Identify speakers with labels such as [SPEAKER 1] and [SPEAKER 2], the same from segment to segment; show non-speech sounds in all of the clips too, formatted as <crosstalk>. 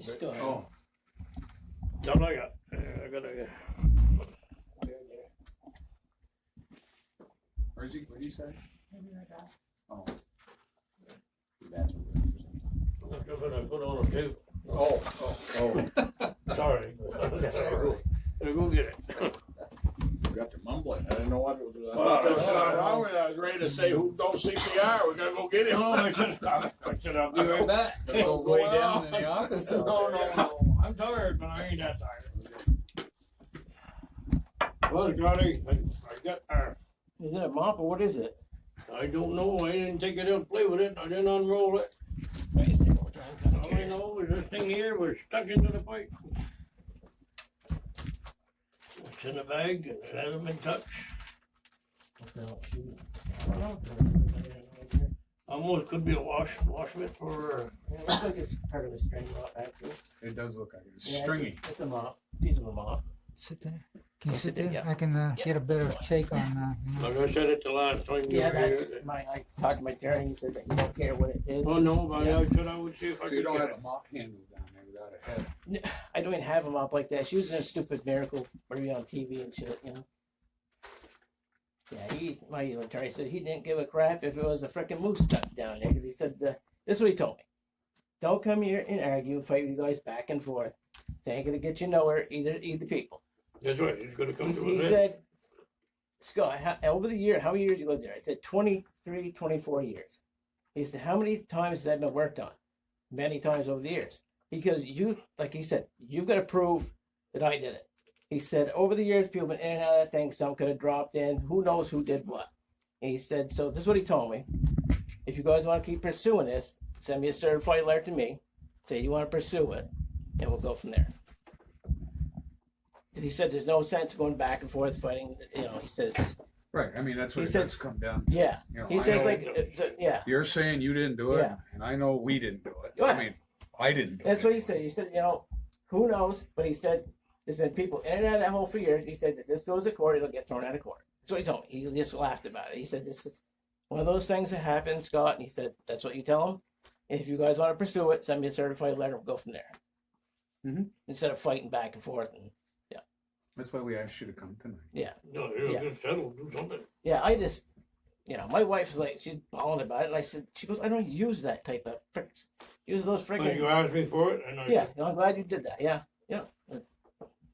[SPEAKER 1] Just go ahead.
[SPEAKER 2] Oh,
[SPEAKER 3] I'm not gonna, I gotta,
[SPEAKER 2] where's he, what'd he say? Oh,
[SPEAKER 3] I'm gonna put on a table.
[SPEAKER 2] oh, oh.
[SPEAKER 3] <laughs> Sorry.
[SPEAKER 2] Sorry.
[SPEAKER 3] I'll go get it.
[SPEAKER 2] You got to mumbling. I didn't know what it was. I
[SPEAKER 3] Well,
[SPEAKER 2] thought there was
[SPEAKER 3] that's
[SPEAKER 2] something
[SPEAKER 3] all right.
[SPEAKER 2] wrong with it. I was ready to say, who don't CPR? We gotta go get him. <laughs>
[SPEAKER 3] No, I said, I said, I'll be right back.
[SPEAKER 2] <laughs> Go way down in the office.
[SPEAKER 3] No, no, no, I'm tired, but I ain't that tired. Well, Johnny, I, I got tired.
[SPEAKER 1] Is it a mop or what is it?
[SPEAKER 3] I don't know, I didn't take it out, play with it, I didn't unroll it. All I know is this thing here was stuck into the pipe. It's in a bag and it hasn't been touched. Almost could be a wash, wash mitt for,
[SPEAKER 1] It looks like it's part of a string mop, actually.
[SPEAKER 2] It does look like it's
[SPEAKER 1] Yeah,
[SPEAKER 2] stringy.
[SPEAKER 1] It's a mop. Piece of a mop.
[SPEAKER 4] Sit there. Can
[SPEAKER 1] Oh,
[SPEAKER 4] you sit
[SPEAKER 1] sit there,
[SPEAKER 4] there?
[SPEAKER 1] yeah.
[SPEAKER 4] I can uh,
[SPEAKER 1] Yeah.
[SPEAKER 4] get a better take on uh, you know,
[SPEAKER 3] like I said it the last time you
[SPEAKER 1] Yeah,
[SPEAKER 3] were here.
[SPEAKER 1] that's my. I talked to my attorney. He said that you don't care what it is.
[SPEAKER 3] Oh, no, but I said I would see if I
[SPEAKER 2] So
[SPEAKER 3] could
[SPEAKER 2] you don't
[SPEAKER 3] get
[SPEAKER 2] have
[SPEAKER 3] it.
[SPEAKER 2] a mop handle down there without a head.
[SPEAKER 1] I don't even have a mop like that. She was in a stupid miracle movie on TV and shit, you know. Yeah, he, my attorney said he didn't give a crap if it was a frickin' moose stuck down there. 'cause he said, uh, this is what he told me. Don't come here and argue, fight you guys back and forth. It ain't gonna get you nowhere, either, either people.
[SPEAKER 3] That's right, it's gonna come to
[SPEAKER 1] He
[SPEAKER 3] an end.
[SPEAKER 1] said, Scott, how, over the year, how many years you lived there? I said, 23, 24 years. He said, how many times has that been worked on? Many times over the years. Because you, like he said, you've got to prove that I did it. He said, over the years, people been in and out of that thing. Some could have dropped in. Who knows who did what? And he said, so this is what he told me. If you guys want to keep pursuing this, send me a certified letter to me. Say you want to pursue it, and we'll go from there he said there's no sense going back and forth fighting. You know, he says,
[SPEAKER 2] Right, I mean, that's what
[SPEAKER 1] He
[SPEAKER 2] it
[SPEAKER 1] said-
[SPEAKER 2] does come down. to.
[SPEAKER 1] yeah.
[SPEAKER 2] You know,
[SPEAKER 1] He
[SPEAKER 2] I
[SPEAKER 1] says
[SPEAKER 2] know
[SPEAKER 1] like, it's a- yeah.
[SPEAKER 2] You're saying you didn't do it,
[SPEAKER 1] Yeah.
[SPEAKER 2] and I know we didn't do it.
[SPEAKER 1] Yeah.
[SPEAKER 2] I mean, I didn't do it.
[SPEAKER 1] That's what he said. He said, you know, who knows? But he said there's been people in and out of that hole for years. He said if this goes to court, it'll get thrown out of court. That's what he told me. He just laughed about it. He said this is one of those things that happen, Scott. And he said that's what you tell him. If you guys want to pursue it, send me a certified letter. We'll go from there.
[SPEAKER 2] Mhm.
[SPEAKER 1] Instead of fighting back and forth. And
[SPEAKER 2] That's why we asked you to come tonight.
[SPEAKER 3] No, it'll
[SPEAKER 1] Yeah.
[SPEAKER 3] get settled, do something.
[SPEAKER 1] yeah, I just, you know, my wife's like, she's bawling about it. And I said, she goes, I don't use that type of fricks. Use those
[SPEAKER 3] But
[SPEAKER 1] friggin'
[SPEAKER 3] you asked me for it and I,
[SPEAKER 1] Yeah,
[SPEAKER 3] the
[SPEAKER 1] no, I'm glad you did that. Yeah,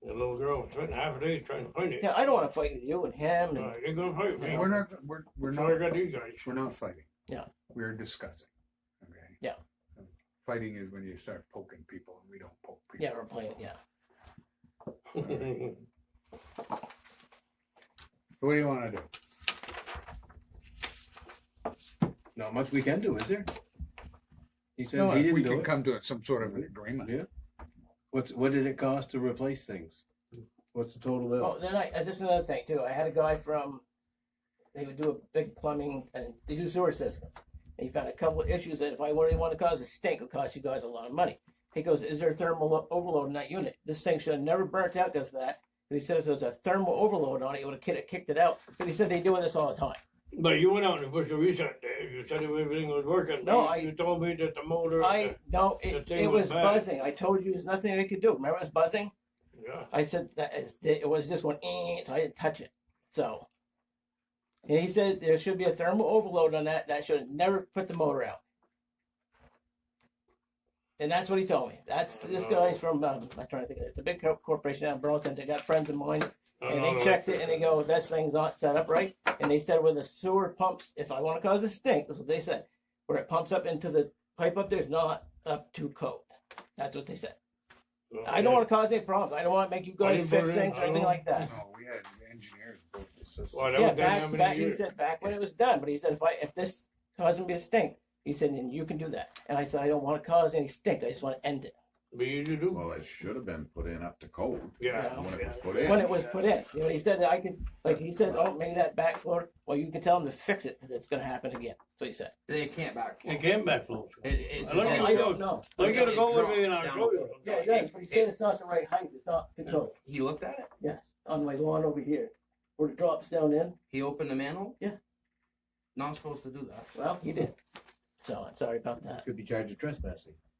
[SPEAKER 3] little girl spent half a day trying to find it.
[SPEAKER 1] yeah. I don't want to fight with you and him. And
[SPEAKER 3] Uh, You're gonna fight me.
[SPEAKER 2] We're not, we're, we're
[SPEAKER 3] So I
[SPEAKER 2] not,
[SPEAKER 3] got these guys.
[SPEAKER 2] we're not fighting.
[SPEAKER 1] Yeah.
[SPEAKER 2] We're discussing, okay?
[SPEAKER 1] Yeah.
[SPEAKER 2] Fighting is when you start poking people, and we don't poke people.
[SPEAKER 1] yeah, we're playing. Yeah,
[SPEAKER 3] <laughs>
[SPEAKER 2] So what do you wanna do?
[SPEAKER 5] Not much we can do, is there? He
[SPEAKER 2] No,
[SPEAKER 5] said he
[SPEAKER 2] we
[SPEAKER 5] didn't do
[SPEAKER 2] can
[SPEAKER 5] it.
[SPEAKER 2] come to some sort of an agreement.
[SPEAKER 5] Yeah. What's, what did it cost to replace things? What's the total bill?
[SPEAKER 1] Oh, then I, uh, this is another thing too. I had a guy from, they would do a big plumbing and they do sewer system. And he found a couple of issues that if I really want to cause a stink, it'll cost you guys a lot of money. He goes, is there thermal o- overload in that unit? This thing should have never burnt out because of that. And he said if there was a thermal overload on it, it would have kid- kicked it out. But he said they doing this all the time.
[SPEAKER 3] But you went out and pushed the reset there, you said everything was working.
[SPEAKER 1] No,
[SPEAKER 3] You-
[SPEAKER 1] I-
[SPEAKER 3] You told me that the motor.
[SPEAKER 1] I no,
[SPEAKER 3] the
[SPEAKER 1] it,
[SPEAKER 3] thing
[SPEAKER 1] it
[SPEAKER 3] went
[SPEAKER 1] was
[SPEAKER 3] bad.
[SPEAKER 1] buzzing. I told you there's nothing they could do. Remember it was buzzing?
[SPEAKER 3] Yeah,
[SPEAKER 1] I said that is, it was just one, eh, so I didn't touch it. So and he said there should be a thermal overload on that. That should have never put the motor out. And that's what he told me. That's this guy's from um, I'm trying to think of it. It's a big co- corporation out in Burlington. They got friends of mine, and
[SPEAKER 3] Oh,
[SPEAKER 1] they checked it and they go, "This thing's not set up right." And they said, "Where the sewer pumps, if I want to cause a stink, that's what they said. Where it pumps up into the pipe up there is not up to code." That's what they said. I don't want to cause any problems. I don't want to make you
[SPEAKER 3] I
[SPEAKER 1] guys
[SPEAKER 3] didn't
[SPEAKER 1] fix
[SPEAKER 3] vote in.
[SPEAKER 1] things
[SPEAKER 3] I
[SPEAKER 1] or anything
[SPEAKER 3] don't-
[SPEAKER 1] like that.
[SPEAKER 2] No, Oh, we had engineers built the system.
[SPEAKER 3] Well, that
[SPEAKER 1] Yeah,
[SPEAKER 3] was done how
[SPEAKER 1] back, back,
[SPEAKER 3] many
[SPEAKER 1] he
[SPEAKER 3] years?
[SPEAKER 1] said back when it was done, but he said, if I, if this causes me a stink, he said, then you can do that. And I said, I don't want to cause any stink. I just want to end it
[SPEAKER 3] But you do.
[SPEAKER 6] Well, it should have been put in up to code
[SPEAKER 3] Yeah.
[SPEAKER 6] when it was
[SPEAKER 3] yeah.
[SPEAKER 6] put
[SPEAKER 1] when
[SPEAKER 6] in.
[SPEAKER 1] it was put in. You know, he said, I could, like, he said, oh, maybe that backflow, well, you can tell him to fix it because it's going to happen again. So he said,
[SPEAKER 7] They can't back.
[SPEAKER 3] It came back close.
[SPEAKER 7] It, it's.
[SPEAKER 3] I don't
[SPEAKER 1] I don't know.
[SPEAKER 3] I gotta go with me and I'll
[SPEAKER 7] Down.
[SPEAKER 3] show you.
[SPEAKER 1] Yeah, yeah, but he said it's not the right height. It's not the code.
[SPEAKER 7] He looked at it.
[SPEAKER 1] Yes, on my lawn over here where it drops down in.
[SPEAKER 7] He opened the manhole.
[SPEAKER 1] Yeah.
[SPEAKER 7] Not supposed to do that.
[SPEAKER 1] Well, he did. So I'm sorry about that.
[SPEAKER 5] Could be charged with trespassing.